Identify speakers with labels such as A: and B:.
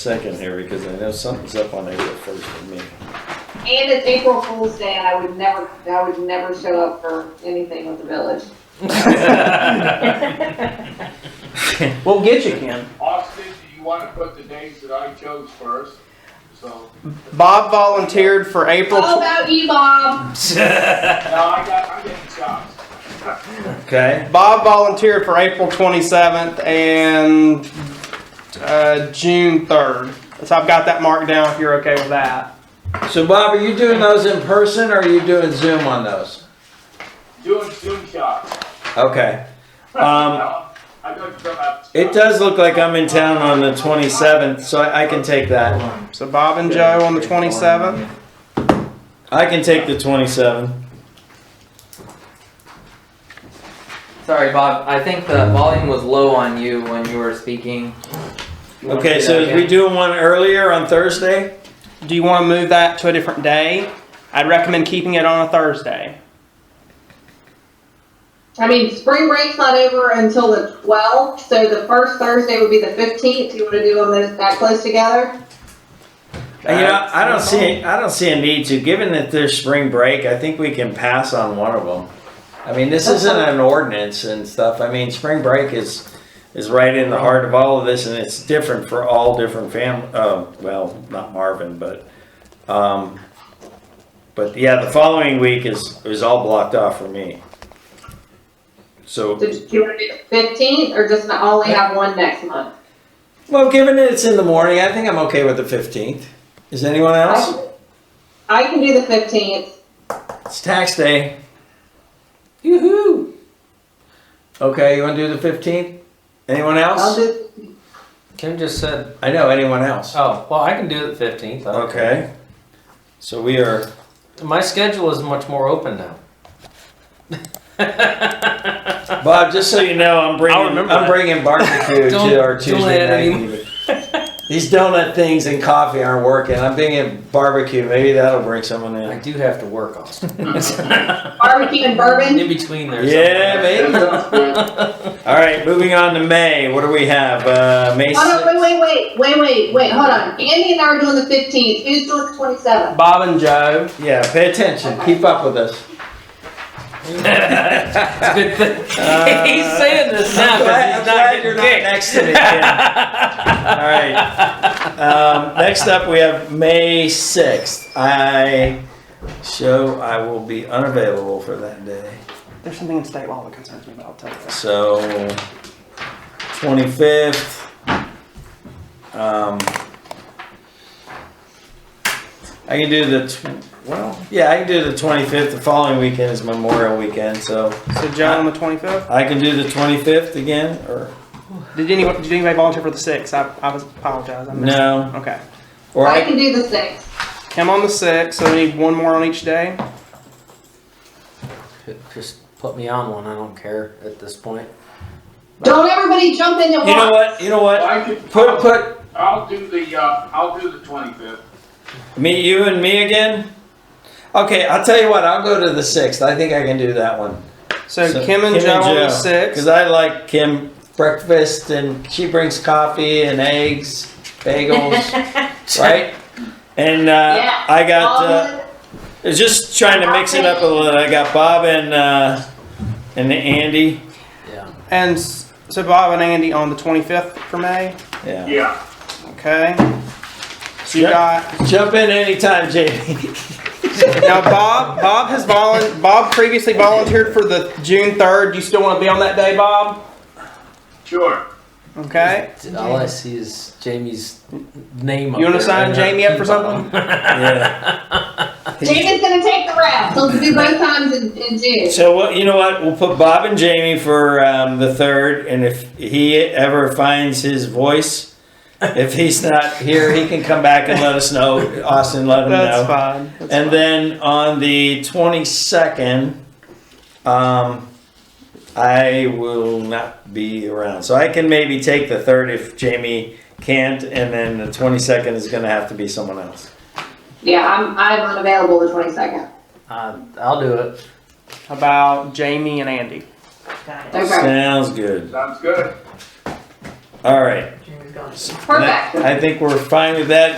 A: second here because I know something's up on April first for me.
B: And it's April Fool's Day, and I would never, I would never show up for anything with the village.
C: We'll get you, Ken.
D: Austin, do you want to put the days that I chose first? So,
C: Bob volunteered for April.
B: All about you, Bob.
D: now I got, I'm getting shots.
A: Okay,
C: Bob volunteered for April 27th and uh, June 3rd. So I've got that marked down. If you're okay with that.
A: so Bob, are you doing those in person or are you doing Zoom on those?
D: Doing Zoom shots.
A: Okay. Um,
D: I got you about.
A: it does look like I'm in town on the twenty-seventh, so I, I can take that.
C: So Bob and Joe on the 27th.
A: I can take the twenty-seventh.
E: Sorry, Bob. I think the volume was low on you when you were speaking.
A: Okay, so is we doing one earlier on Thursday?
C: Do you want to move that to a different day? I'd recommend keeping it on a Thursday.
B: I mean, spring break's not over until the twelfth, so the first Thursday would be the fifteenth. You wanna do them this- that close together?
A: You know, I don't see, I don't see a need to, given that there's spring break, I think we can pass on one of them. I mean, this isn't an ordinance and stuff, I mean, spring break is, is right in the heart of all of this and it's different for all different fam, uh, well, not Marvin, but, um, but yeah, the following week is, is all blocked off for me. So,
B: So do you wanna do the fifteenth, or just not only have one next month?
A: well, given that it's in the morning, I think I'm okay with the fifteenth. Is anyone
B: I
A: else?
B: can- I can do the fifteenth.
A: It's tax day. Yoo-hoo. Okay, you want to do the 15th? Anyone
B: I'll
A: else?
B: do,
F: Kim just said,
A: I know, anyone else?
F: oh, well, I can do it the fifteenth.
A: Okay. So we are,
F: My schedule is much more open now.
A: Bob, just so you know, I'm
F: I'll
A: bringing,
F: remember
A: I'm
F: that.
A: bringing barbecue to
F: Don't-
A: our
F: don't
A: Tuesday
F: add
A: night
F: any-
A: meeting. These donut things and coffee aren't working. I'm bringing barbecue. Maybe that'll bring someone
F: I
A: in.
F: do have to work, Austin.
B: barbecue and bourbon,
F: In between there.
A: Yeah,
D: That
A: maybe.
D: sounds good.
A: All right, moving on to May. What do we have? Uh, May
B: hold on,
A: 6th.
B: wait, wait, wait, wait, wait, wait, hold on. Andy and I are doing the fifteenth, who's doing the twenty-seventh?
C: Bob and Joe.
A: Yeah, pay attention. Keep up with us.
F: It's a good thing. he's saying this now
A: I'm glad, I'm
F: because he's
A: glad
F: not
A: you're
F: getting
A: not
F: kicked.
A: next to me. Ken. All right. Um, next up, we have May 6th. I show I will be unavailable for that day.
C: There's something in state law that concerns me, but I'll tell you. This.
A: So, 25th. Um, I can do the tw- well, yeah, I can do the 25th. The following weekend is Memorial Weekend, so
C: So Joe on the 25th.
A: I can do the 25th again. Or
C: Did anyone? Did anybody volunteer for the 6th? I, I was apologize. I missed it.
A: no,
C: Okay.
A: or
B: I
A: I,
B: can do the sixth.
C: Him on the 6th. So we need one more on each day.
F: Just put me on one. I don't care at this point.
B: Don't everybody jump in at once.
A: you know what, you know what.
D: I could,
A: Put
D: I'll,
A: put
D: I'll do the, uh, I'll do the twenty-fifth.
A: me you and me again. Okay, I'll tell you what. I'll go to the sixth. I think I can do that one.
C: So, Kim and Joe on the 6th.
A: because I like Kim breakfast and she brings coffee and eggs, bagels, right? And uh,
B: Yeah,
A: I got
B: All
A: uh,
B: the-
A: just trying to mix it up a little. I got Bob and uh, and Andy.
F: Yeah.
C: And s- so Bob and Andy on the 25th for May.
A: Yeah,
D: Yeah.
C: Okay. So you
A: Yep.
C: got
A: jump in anytime, Jamie.
C: now Bob. Bob has volun. Bob previously volunteered for the June 3rd. You still want to be on that day, Bob?
D: Sure.
C: Okay.
F: All I see is Jamie's name.
C: You wanna sign Jamie up for something?
A: yeah.
B: Um, David's gonna take the rap. He'll do both times in, in June.
A: So what you know what we'll put Bob and Jamie for um, the third, and if he ever finds his voice, if he's not here, he can come back and let us know. Austin, let him
C: That's
A: know.
C: fine. That's
A: And
C: fine.
A: then on the twenty second, um, I will not be around, so I can maybe take the third if Jamie can't, and then the twenty second is going to have to be someone else.
B: Yeah, I'm, I'm unavailable the twenty-second.
F: Uh, I'll do it.
C: about Jamie and Andy.
B: Okay.
A: Sounds good.
D: Sounds good.
A: All right.
E: June
A: And
B: Perfect.
A: I I think we're fine with that.